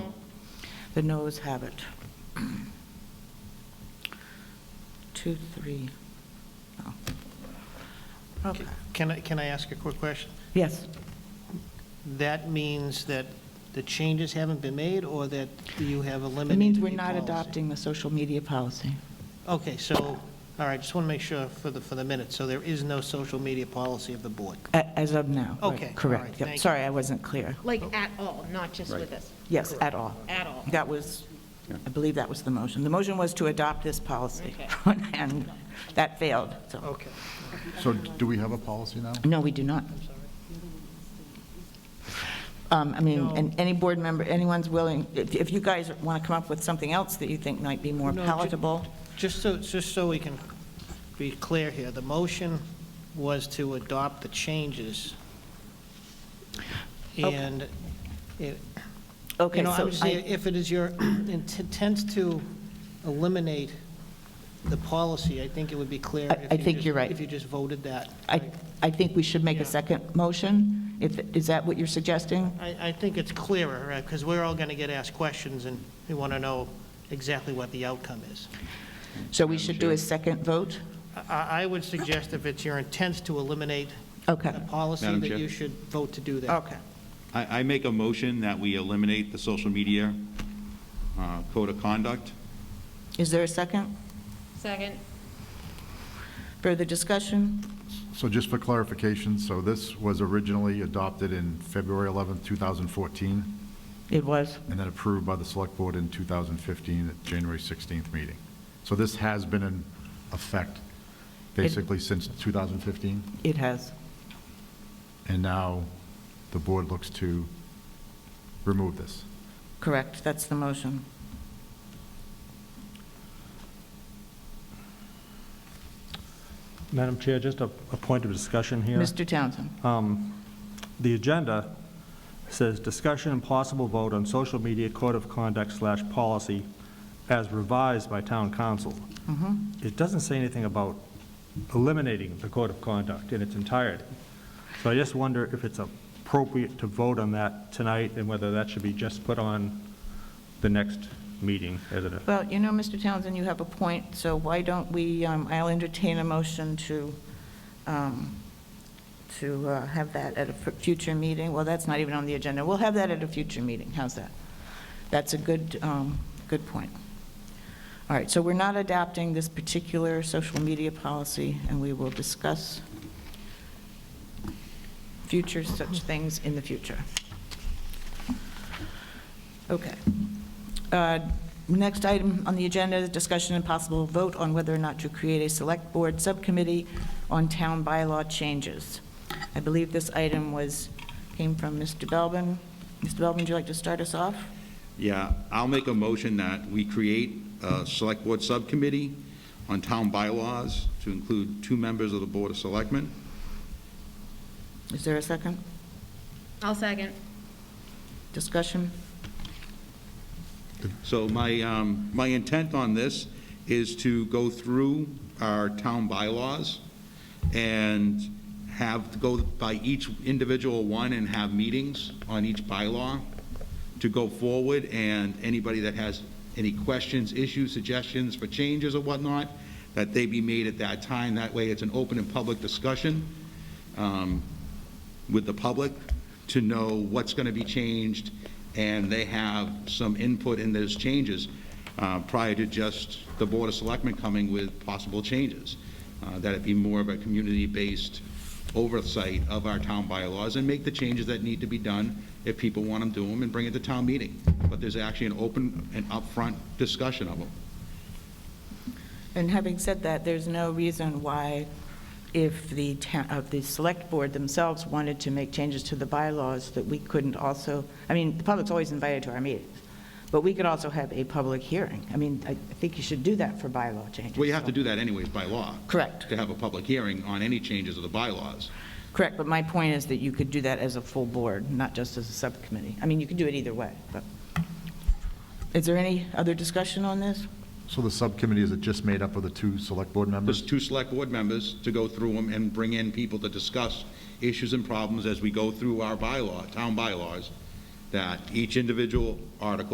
The noes have it. Two, three. no. Okay, Can I, can I ask a quick question? yes. That means that the changes haven't been made, or that you have eliminated It means we're the not policy? adopting the social media policy. Okay, so, all right, just want to make sure for the, for the minute, so there is no social media policy of the board? A- As of now. right, Okay, all right, Correct. Yep, thank you. Sorry, I wasn't clear. Like, at all, not just with us, Yes, at all. at all. That was, I believe that was the motion. The motion was to adopt this policy, and that failed, so. Okay. So do we have a policy now? No, we do not. Um, I mean, and any board member, anyone's willing, if if you guys want to come up with something else that you think might be more No, ju- palatable, Just so, just so we can be clear here, the motion was to adopt the changes. Okay. And it, okay, You know, I so would say, I, if it is your intent to eliminate the policy, I think it would be clear. I- if I you think just- you're right. If you just voted that. I I think we should make a Yeah. second motion, if, is that what you're suggesting? I, I think it's clearer, right, because we're all going to get asked questions, and we want to know exactly what the outcome is. So we should do a second vote? I, I would suggest if it's your intent to eliminate Okay, the policy, Madam that Chair? you should vote to do that. okay. I, I make a motion that we eliminate the social media uh, code of conduct. Is there a second? Second. Further discussion? So just for clarification, so this was originally adopted in February 11th, 2014, It was. and then approved by the Select Board in 2015 at January 16th meeting. So this has been in effect basically since 2015, It has. and now the board looks to remove this. Correct, that's the motion. Madam Chair, just a, a point of discussion here. Mr. Townsend? The agenda says discussion and possible vote on social media code of conduct slash policy as revised by town council. It doesn't say anything about eliminating the code of conduct in its entirety. So I just wonder if it's appropriate to vote on that tonight and whether that should be just put on the next meeting as a, Well, you know, Mr. Townsend, you have a point, so why don't we, um, I'll entertain a motion to, um, to uh, have that at a fu- future meeting. Well, that's not even on the agenda. We'll have that at a future meeting. How's that? That's a good, um, good point. All right, so we're not adapting this particular social media policy, and we will discuss future such things in the future. Okay. Uh, Next item on the agenda, is discussion and possible vote on whether or not to create a Select Board Subcommittee on Town Bylaw Changes. I believe this item was, came from Mr. Belbin. Mr. Belbin, would you like to start us off? Yeah, I'll make a motion that we create a select board subcommittee on town bylaws to include two members of the Board of Selectmen. Is there a second? I'll second. Discussion? So my, um, my intent on this is to go through our town bylaws and have, go by each individual one and have meetings on each bylaw to go forward, and anybody that has any questions, issues, suggestions for changes or whatnot, that they be made at that time. That way, it's an open and public discussion um, with the public to know what's going to be changed, and they have some input in those changes uh, prior to just the Board of Selectmen coming with possible changes. Uh, That it be more of a community-based oversight of our town bylaws and make the changes that need to be done if people want them, do them, and bring it to town meeting. But there's actually an open and upfront discussion of them. And having said that, there's no reason why if the, ta- of the select board themselves wanted to make changes to the bylaws, that we couldn't also, I mean, the public's always invited to our meetings, but we could also have a public hearing. I mean, I I think you should do that for bylaw changes. Well, you have to so- do that anyways by law. Correct. To have a public hearing on any changes of the bylaws. Correct, but my point is that you could do that as a full board, not just as a subcommittee. I mean, you could do it either way, but. Is there any other discussion on this? So the subcommittee, is it just made up of the two Select Board members? There's two select board members to go through them and bring in people to discuss issues and problems as we go through our bylaw, town bylaws, that each individual article